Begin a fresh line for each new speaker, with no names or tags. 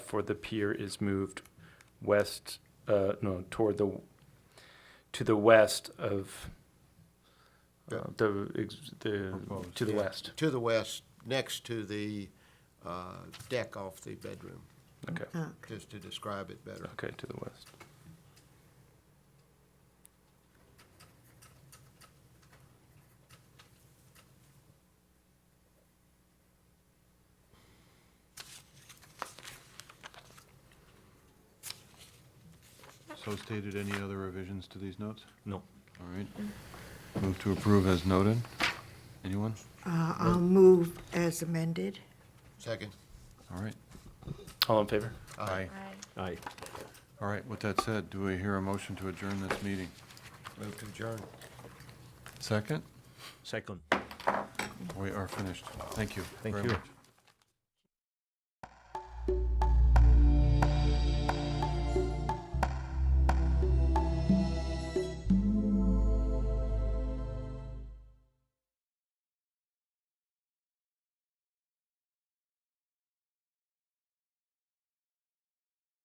for the pier is moved west, uh, no, toward the, to the west of uh, the, ex- the, to the
Yeah,
west.
To the west, next to the uh, deck off the bedroom,
Okay,
Uh,
just to describe it better.
okay, to the west.
So stated, any other revisions to these notes?
No.
All right. Move to approve as noted. Anyone?
Uh, I'll move as amended.
Second.
All right.
All in favor?
Aye.
Aye.
All right, with that said, do we hear a motion to adjourn this meeting?
Move to adjourn.
Second?
Second.
We are finished. Thank you.
Thank
very
you.
much.